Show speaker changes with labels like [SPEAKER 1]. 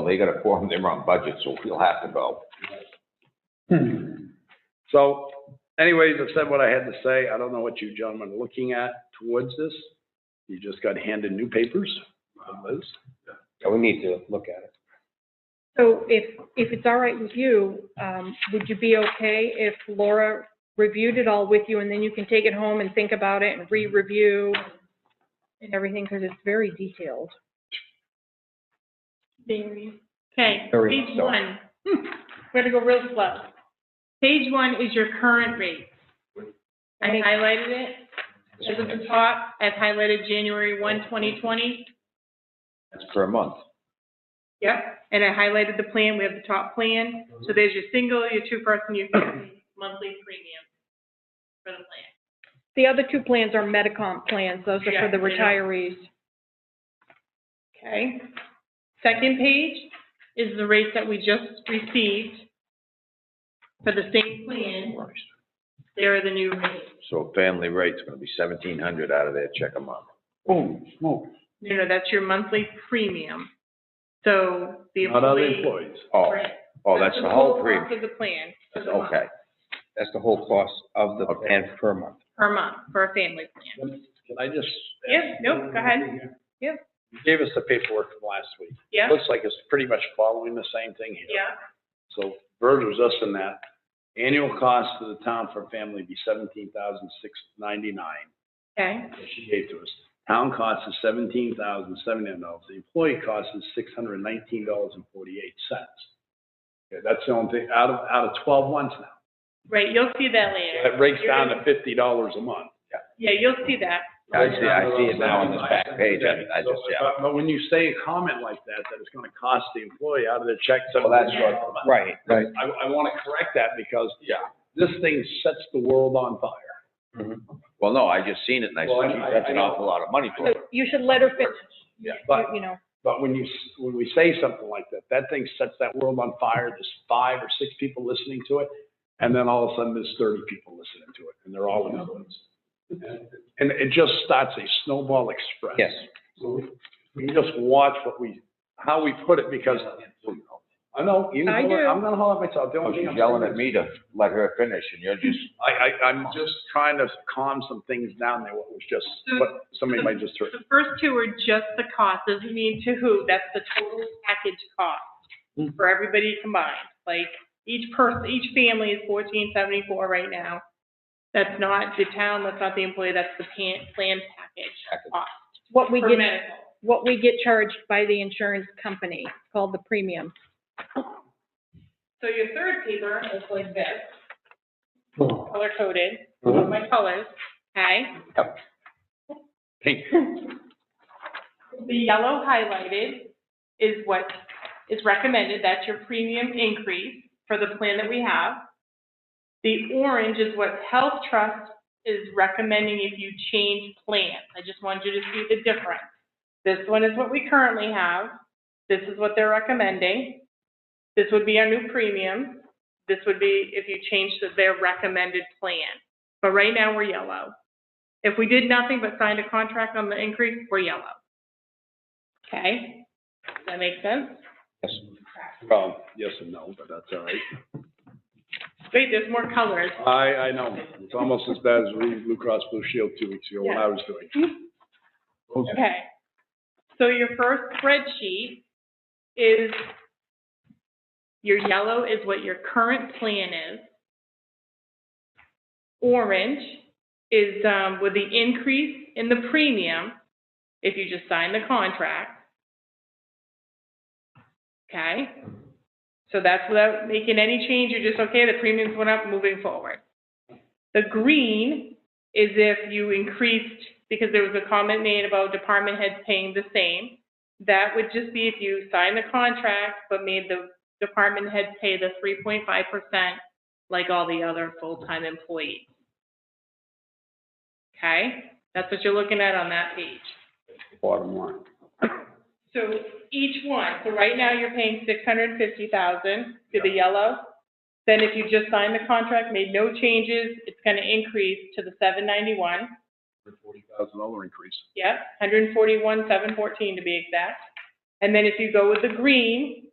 [SPEAKER 1] they got a forum, they run budget, so we'll have to go.
[SPEAKER 2] So anyways, I've said what I had to say. I don't know what you gentlemen are looking at towards this. You just got handed new papers from Liz.
[SPEAKER 3] We need to look at it.
[SPEAKER 4] So if, if it's all right with you, um, would you be okay if Laura reviewed it all with you and then you can take it home and think about it and re-review and everything, because it's very detailed.
[SPEAKER 5] Very. Okay,
[SPEAKER 3] Very
[SPEAKER 5] page
[SPEAKER 3] slow.
[SPEAKER 5] one. Hmm, We're gonna go real slow. Page one is your current rate. I
[SPEAKER 4] Okay.
[SPEAKER 5] highlighted it. As of the top, I've highlighted January 1, 2020.
[SPEAKER 1] That's per month.
[SPEAKER 5] Yep. And I highlighted the plan, we have the top plan. So there's your single, your two-person, your family, monthly premium for the plan.
[SPEAKER 4] The other two plans are Medicom plans. Those are for the
[SPEAKER 5] Yeah, they
[SPEAKER 4] retirees.
[SPEAKER 5] Okay. Second page is the rates that we just received for the same plan. There are the new rates.
[SPEAKER 1] So family rate's gonna be seventeen hundred out of their check a month.
[SPEAKER 2] Boom, smoke.
[SPEAKER 5] No, no, that's your monthly premium. So the
[SPEAKER 2] Not other
[SPEAKER 5] employee.
[SPEAKER 2] employees.
[SPEAKER 1] Oh,
[SPEAKER 5] Right.
[SPEAKER 1] oh, that's the whole
[SPEAKER 5] cost
[SPEAKER 1] premium,
[SPEAKER 5] Of the plan. for the month,
[SPEAKER 1] okay.
[SPEAKER 3] That's the whole cost of the plan per month.
[SPEAKER 5] Per month, for a family plan.
[SPEAKER 3] Can I just?
[SPEAKER 5] Yeah, no, go ahead.
[SPEAKER 3] You Gave us the paperwork from last week.
[SPEAKER 5] Yeah,
[SPEAKER 2] Looks like it's pretty much following the same thing here.
[SPEAKER 5] yeah,
[SPEAKER 2] So Verge was us in that. Annual cost to the town for a family would be seventeen thousand six ninety-nine.
[SPEAKER 5] okay,
[SPEAKER 2] that she gave to us. Town cost is seventeen thousand seven hundred dollars. The employee cost is six hundred nineteen dollars and forty-eight cents. that's the only thing, out of, out of twelve months now.
[SPEAKER 5] right, you'll see that later.
[SPEAKER 2] That breaks
[SPEAKER 5] You're
[SPEAKER 2] down to
[SPEAKER 5] gonna-
[SPEAKER 2] fifty dollars a month.
[SPEAKER 5] Yeah, you'll see that.
[SPEAKER 1] I see, I see it now on this back page, I, I just, yeah.
[SPEAKER 2] But- But when you say a comment like that, that it's gonna cost the employee out of their check
[SPEAKER 1] Well,
[SPEAKER 2] seventeen
[SPEAKER 1] that's
[SPEAKER 2] dollars a month.
[SPEAKER 3] Right, right.
[SPEAKER 2] I, I wanna correct that because
[SPEAKER 1] Yeah.
[SPEAKER 2] this thing sets the world on fire.
[SPEAKER 1] Well, no, I just seen it and I
[SPEAKER 2] Well, I-
[SPEAKER 1] said, "Gee, that's an
[SPEAKER 2] I- I-
[SPEAKER 1] awful lot of money for
[SPEAKER 4] So
[SPEAKER 1] it.
[SPEAKER 4] you should let her finish,
[SPEAKER 2] Yeah. But
[SPEAKER 4] you- you know.
[SPEAKER 2] But when you, when we say something like that, that thing sets that world on fire. There's five or six people listening to it. And then all of a sudden there's thirty people listening to it and they're all influenced. And it just starts a snowball express.
[SPEAKER 3] Yes.
[SPEAKER 2] We just watch what we, how we put it because I know, you know,
[SPEAKER 4] I do.
[SPEAKER 2] I'm gonna hold up myself. The
[SPEAKER 1] Oh,
[SPEAKER 2] only thing
[SPEAKER 1] she's
[SPEAKER 2] I'm
[SPEAKER 1] yelling at
[SPEAKER 2] saying is-
[SPEAKER 1] me to let her finish and you're just,
[SPEAKER 2] I, I, I'm just trying to calm some things down there. What was just, what somebody might just heard.
[SPEAKER 5] The first two are just the cost, doesn't mean to who, that's the total package cost for everybody combined. Like, each person, each family is fourteen seventy-four right now. That's not the town, that's not the employee, that's the pan, plan package cost
[SPEAKER 4] What we
[SPEAKER 5] for
[SPEAKER 4] get,
[SPEAKER 5] medical.
[SPEAKER 4] what we get charged by the insurance company, it's called the premium.
[SPEAKER 5] So your third paper is like this, color coded, my colors, okay?
[SPEAKER 2] Pink.
[SPEAKER 5] The yellow highlighted is what is recommended, that's your premium increase for the plan that we have. The orange is what Health Trust is recommending if you change plans. I just wanted you to see the difference. This one is what we currently have, this is what they're recommending. This would be our new premium, this would be if you change to their recommended plan. But right now, we're yellow. If we did nothing but signed a contract on the increase, we're yellow. Okay, does that make sense?
[SPEAKER 2] Well, yes and no, but that's all right.
[SPEAKER 5] Wait, there's more colors.
[SPEAKER 2] I, I know. It's almost as bad as reading Blue Cross Blue Shield two weeks ago when I was doing. it.
[SPEAKER 5] Okay. So your first spreadsheet is, your yellow is what your current plan is. Orange is, um, with the increase in the premium, if you just sign the contract. Okay? So that's without making any change, you're just, okay, the premiums went up, moving forward. The green is if you increased, because there was a comment made about department heads paying the same. That would just be if you signed the contract but made the department head pay the three point five percent like all the other full-time employees. Okay, that's what you're looking at on that page.
[SPEAKER 2] Bottom line.
[SPEAKER 5] So each one, so right now you're paying six hundred and fifty thousand to the yellow. Then if you just signed the contract, made no changes, it's gonna increase to the seven ninety-one.
[SPEAKER 2] Forty thousand dollar increase.
[SPEAKER 5] Yep, hundred and forty-one, seven fourteen to be exact. And then if you go with the green,